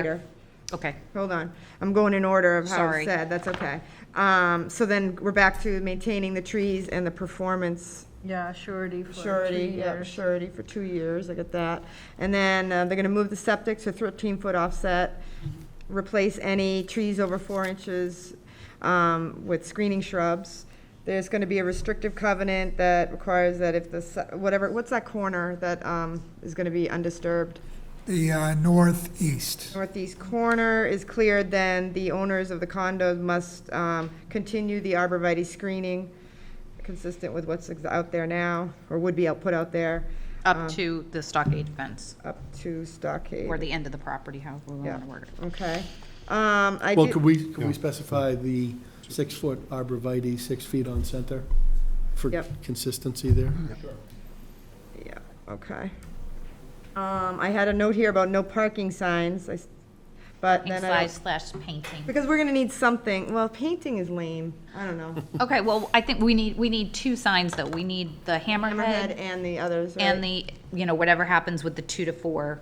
later. Okay, Hold on, I'm going in order of how Sorry. it's said, that's okay. Um, so then we're back to maintaining the trees and the performance Yeah, surety for two surety, yep, years. surety for two years, I get that. And then, uh, they're gonna move the septic to thirteen-foot offset, replace any trees over four inches, um, with screening shrubs. There's gonna be a restrictive covenant that requires that if the, se- whatever, what's that corner that, um, is gonna be undisturbed? The uh, northeast. northeast corner is cleared, then the owners of the condos must um, continue the arborvitae screening consistent with what's ex- out there now, or would be out- put out there, Um, up to the stockade fence, up to stockade. or the end of the property, however we want to word it. Okay. Um, I Well, do- could we, could we specify the six-foot arborvitae, six feet on center for Yep. consistency there? Yeah, okay. Um, I had a note here about no parking signs, I s- but then I, Size don't- slash painting. because we're gonna need something, well, painting is lame, I don't know. Okay, well, I think we need, we need two signs, though. We need the Hammerhead hammerhead and the others, right? and the, you know, whatever happens with the two to four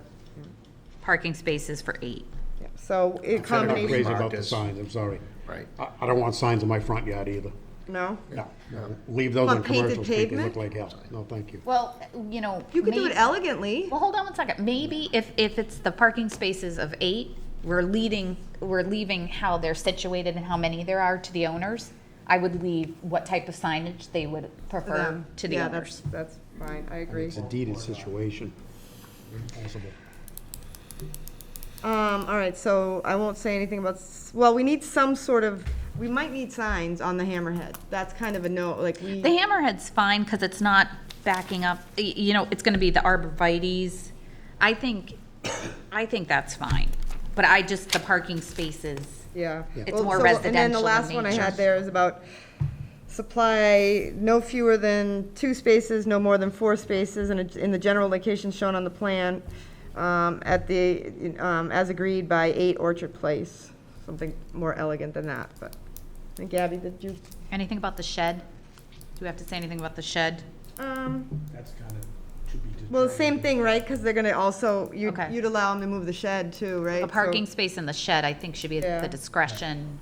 parking spaces for eight. Yeah, So, in I'm not combination, crazy about Marked the as- signs, I'm sorry. Right. I, I don't want signs in my front yard either. no? No, no. leave those on Want painted commercial street, they pavement? look like hell. No, thank you. Well, you know. You could do it may- elegantly. Well, hold on one second. Maybe if, if it's the parking spaces of eight, we're leading, we're leaving how they're situated and how many there are to the owners. I would leave what type of signage they would prefer them. to the Yeah, owners. That's that's fine, I agree. It's a deeded situation. Possible. Um, all right, so I won't say anything about, s- well, we need some sort of, we might need signs on the hammerhead. That's kind of a no, like we, The hammerhead's fine because it's not backing up, y- you know, it's going to be the arborvitae's. I think, I think that's fine. But I just, the parking spaces, yeah. It's Well, more so- And then the residential in last one I nature. had there is about supply no fewer than two spaces, no more than four spaces, and in the general location shown on the plan, um, at the, um, as agreed by eight Orchard Place. Something more elegant than that, but, and Gabby, did you anything about the shed? Do we have to say anything about the shed? Um, That's kind of, should be determined. well, same thing, right? Because they're gonna also, you'd, Okay. you'd allow them to move the shed too, right? A parking So- space in the shed, I think, should be at Yeah. the discretion.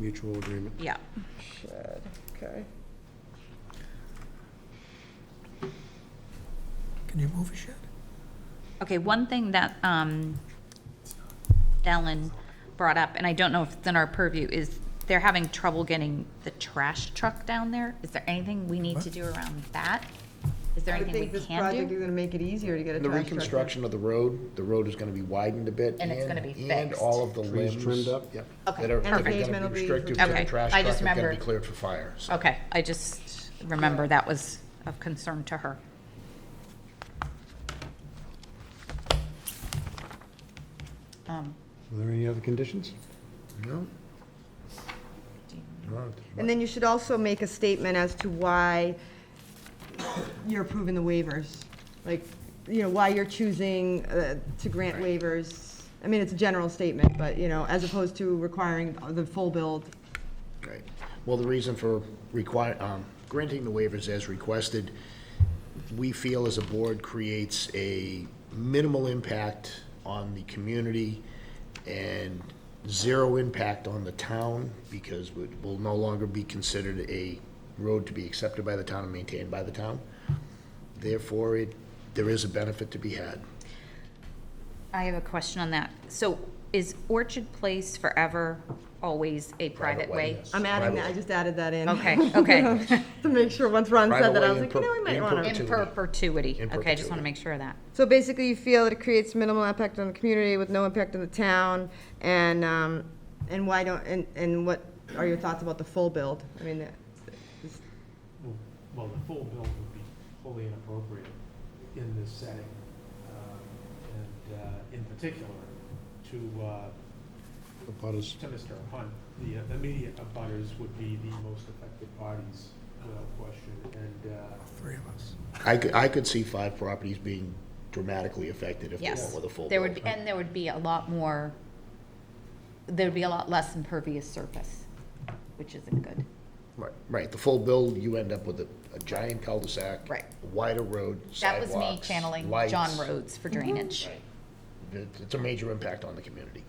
Mutual agreement. Yeah. Shed, Okay. Can you move a shed? Okay, one thing that um, Ellen brought up, and I don't know if it's in our purview, is they're having trouble getting the trash truck down there. Is there anything we need to do around that? Is there I would anything think we this project can is do? gonna make it easier to get a The trash truck. reconstruction of the road, the road is gonna be widened a bit. And it's gonna be And fixed. all of the Trees limbs. trimmed up, yep. Okay, That are, that are perfect. gonna Pavement will be be- restricted to Okay, the trash I truck, just are gonna be remembered. cleared for fire, so. Okay, I just remember that was of concern to her. Um, Are there any other conditions? No? No, And then you should also make a statement as to why you're approving the waivers. Like, you know, why you're choosing, uh, to grant waivers. I mean, it's a general statement, but, you know, as opposed to requiring the full build. Right. Well, the reason for require, um, granting the waivers as requested, we feel as a board creates a minimal impact on the community and zero impact on the town because we will no longer be considered a road to be accepted by the town and maintained by the town. Therefore, it, there is a benefit to be had. I have a question on that. So is Orchard Place forever always a private way? yes. I'm adding that, I Right-of-way. just added that in. Okay, okay. To make sure, once Ron Right said that, I away was in like, you per- know, we might in wanna. per- In perpetuity. In Okay, I just want to perpetuity. make sure of that. So basically, you feel that it creates minimal impact on the community with no impact on the town, and, um, and why don't, and, and what are your thoughts about the full build? I mean, that- is- Well- Well, the full bill would be wholly inappropriate in this setting, um, and uh, in particular to, uh, The butters. to Mr. Hunt. The uh, immediate abutters would be the most affected parties, without question, and uh, Three of us. I could, I could see five properties being dramatically affected if they Yes. went with a full There build. would, be and there would be a lot more, there would be a lot less impervious surface, which isn't good. Right, right, the full build, you end up with a, a giant cul-de-sac. Right. Wider road, That was sidewalks. me channeling lights. John Rhodes for drainage. it- it's a major impact on the community.